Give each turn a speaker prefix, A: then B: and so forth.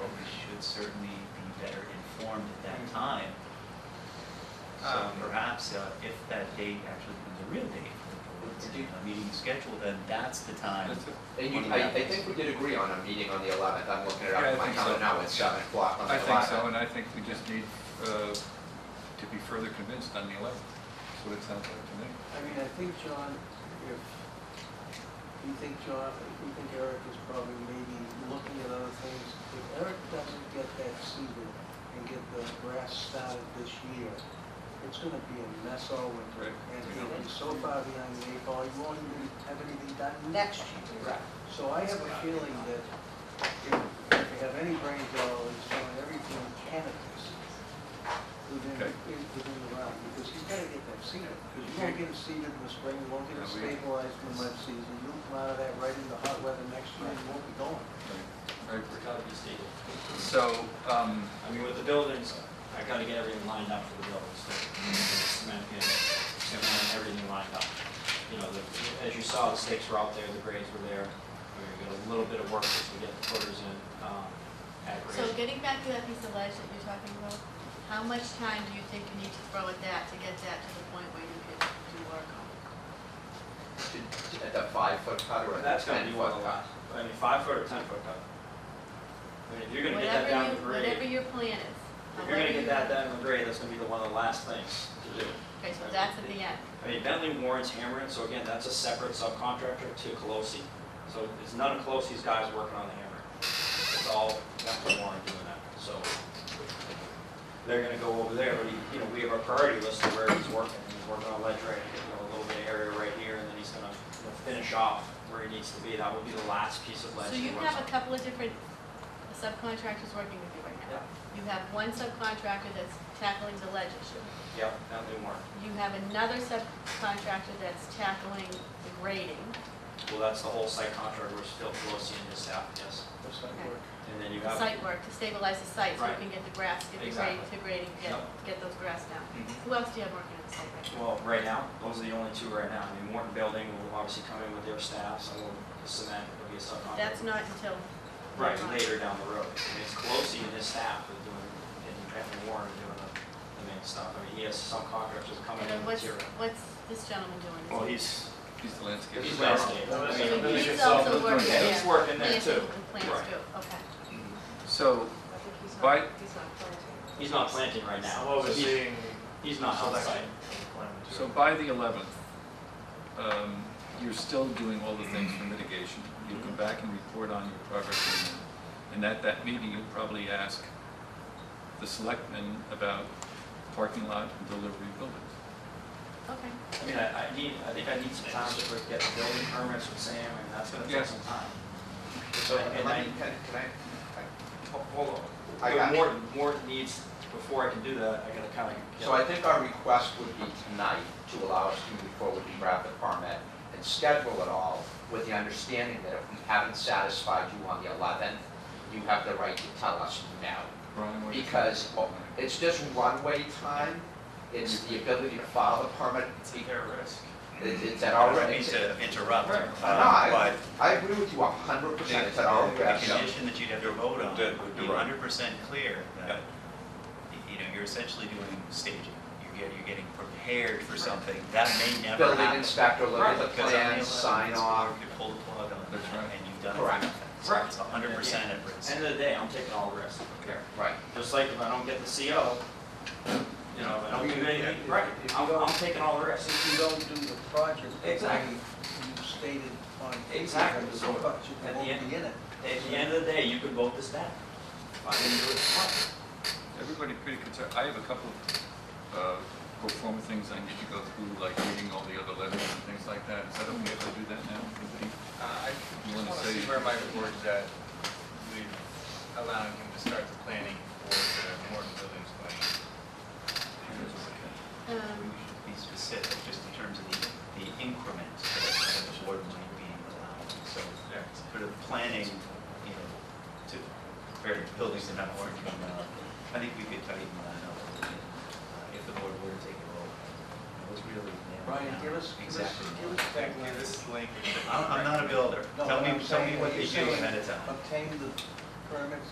A: would certainly be better informed at that time. So
B: Um,
A: perhaps uh, if that date actually becomes a real date for the board's
B: Do you-
A: uh, meeting schedule, then that's the time.
B: That's a-
C: And you,
A: One of
C: I,
A: the
C: I
A: applicants.
C: think we did agree on a meeting on the eleventh, I'm looking it
B: Yeah, I
C: up, my
B: think so.
C: calendar now, it's seven o'clock on the
B: I
C: eleventh.
B: think so, and I think we just need uh, to be further convinced on the 11th. That's what it sounds like to me.
D: I mean, I think John, if, we think John, we think Eric is probably maybe looking at other things. If Eric doesn't get that seeded and get the grass started this year, it's gonna be a mess all winter.
B: Right.
D: And he'll be so far behind the eight ball, you won't even have anything done next year.
C: Right.
D: So I have a feeling that if if you have any brain at all, it's on everything cannabis within,
B: Okay.
D: is within the realm, because he's gotta get that seeded. Because you won't get it seeded in the spring, you won't get it
B: Yeah, we-
D: stabilized in the mud season, you'll come out of that right into hot weather next year and you won't be going.
B: Right.
E: We're gotta be stable.
B: So, um,
E: I mean, with the buildings, I gotta get everything lined up for the buildings, so, cement, you know, cement, everything lined up. You know, the- as you saw, the stakes were out there, the grades were there, we got a little bit of work to get the footers in, um, at
F: So
E: grade.
F: getting back to that piece of ledge that you're talking about, how much time do you think you need to throw at that to get that to the point where you could do work on it?
C: At the five foot cut or at
E: That's
C: the
E: gonna
C: ten
E: be
C: foot
E: one of the
C: cut?
E: last, I mean, five foot or ten foot cut. I mean, if you're gonna get that
F: Whatever
E: down
F: you-
E: to grade,
F: Whatever your plan is.
E: if you're gonna
F: however
E: get
F: you-
E: that down to grade, that's gonna be the one of the last things to do.
F: Okay, so that's at the end.
E: I mean, Bentley Warren's hammering, so again, that's a separate subcontractor to Colosi. So it's none of Colosi's guys working on the hammer. It's all Bentley Warren doing that, so they're gonna go over there, but he, you know, we have our priority list of where he's working. He's working on ledge right, you know, a little bit of area right here, and then he's gonna, you know, finish off where he needs to be. That will be the last piece of ledge
F: So
E: he
F: you
E: works
F: have
E: on.
F: a couple of different subcontractors working with you right now. You have one subcontractor that's tackling the ledge issue.
E: Yep, Bentley Warren.
F: You have another subcontractor that's tackling the grading.
E: Well, that's the whole site contract, which is Phil Colosi and his staff, yes.
D: That's not
F: Okay.
D: work.
E: And then you
F: the
E: have.
F: site work, to stabilize the site, so you
E: Right.
F: can get the grass, get the grade,
E: Exactly.
F: to grading, get,
E: Yep.
F: get those grass down.
E: Mhm.
F: Who else do you have working on the site right now?
E: Well, right now, those are the only two right now. I mean, Morton Building will obviously come in with their staff, some will cement, it'll be a subcontractor.
F: That's not until.
E: Right,
F: later on.
E: later down the road. I mean, it's Colosi and his staff are doing, and Anthony Warren are doing the, the main stuff. I mean, he has some contractors coming
F: And
E: in
F: then
E: with
F: what's,
E: material.
F: what's this gentleman doing?
E: Well, he's,
B: he's the landscape.
E: he's
B: designer.
E: landscape. I
F: So
E: mean,
F: he's also working,
B: Yeah,
E: He's
F: yeah.
E: working there
F: Planting
E: too.
F: with plants
E: Right.
F: too, okay.
B: So,
G: I think he's not, he's
B: Why-
G: not planting.
E: He's not planting right now.
H: I'm
E: so he's-
H: overseeing
E: He's not on
H: selection
E: site.
H: of climate
B: so
H: material.
B: by the 11th, um, you're still doing all the things for mitigation. You'll come back and report on your progress. and- And at that meeting, you'll probably ask the selectmen about parking lot and delivery buildings.
F: Okay.
E: I mean, I, I need, I think I need some time to get the building permits with Sam, and that's gonna take
B: Yes.
E: some time.
C: So,
E: And- and
C: let
E: I-
C: me, can, can I-
E: Ho- Hold on.
C: I
E: But
C: got you.
E: Morton, Morton needs, before I can do that, I gotta kinda
C: I,
E: get.
C: so I think our request would be tonight to allow us to move forward and grab the permit and schedule it all with the understanding that if we haven't satisfied you on the eleventh, you have the right to tell us now.
B: Brian, what do you think?
C: Because it's just one-way time, it's the ability to file a permit,
H: It's their risk.
C: it's it's at
A: I
C: our,
A: don't mean
C: it's
A: to interrupt,
E: Right.
A: um,
C: No, I,
A: but
C: I agree with you a hundred percent, it's at our
A: the
C: risk.
A: condition that you'd have to vote on,
I: That would be
A: be
I: right.
A: hundred percent clear
I: Yeah.
A: that, you know, you're essentially doing staging. You're get, you're getting prepared for something that may never happen.
C: Building inspector, look at the
A: Because on the
C: plans,
A: 11th,
C: sign
A: it's
C: off.
A: clear You pull the plug on
B: That's
A: that,
B: right.
A: and you've done
C: Correct.
A: it.
E: Right.
A: It's hundred percent at risk.
E: End of the day, I'm taking all the risk, I don't care.
C: Right.
E: Just like if I don't get the CO, you know, if I don't do anything, right,
D: If you
E: I'm,
D: don't-
E: I'm taking all the risk.
D: If you don't do the project, the way
E: Exactly.
D: you stated on.
E: Exactly.
D: the project, you
E: At the
D: won't
E: end.
D: be in it.
E: At the end of the day, you can vote this down. If I didn't do it, it's fine.
B: Everybody pretty concerned. I have a couple of uh, pro forma things I need to go through, like reading all the other letters and things like that. Is that okay if I do that now? Anybody?
J: Uh, I
B: You
J: just
B: wanna
J: want to
B: say-
J: see where my board's at, with allowing him to start the planning for the Morton Buildings plan.
A: We
F: Um,
A: should be specific, just in terms of the, the increment that the board might be allowed. So, sort of planning, you know, to various buildings that have already come out. I think we could tighten that up a little bit, uh, if the board were to take a vote. It was really. narrowed
D: Brian,
A: down
D: give us, give us,
A: Exactly.
D: give us
J: Thank
D: that
J: you, this is language.
A: I'm, I'm not a builder.
D: No,
A: Tell
D: what
A: me,
D: I'm
A: tell me
D: saying-
A: what
D: what
A: they
D: you're
A: do
D: saying-
A: ahead of time.
D: obtain the permits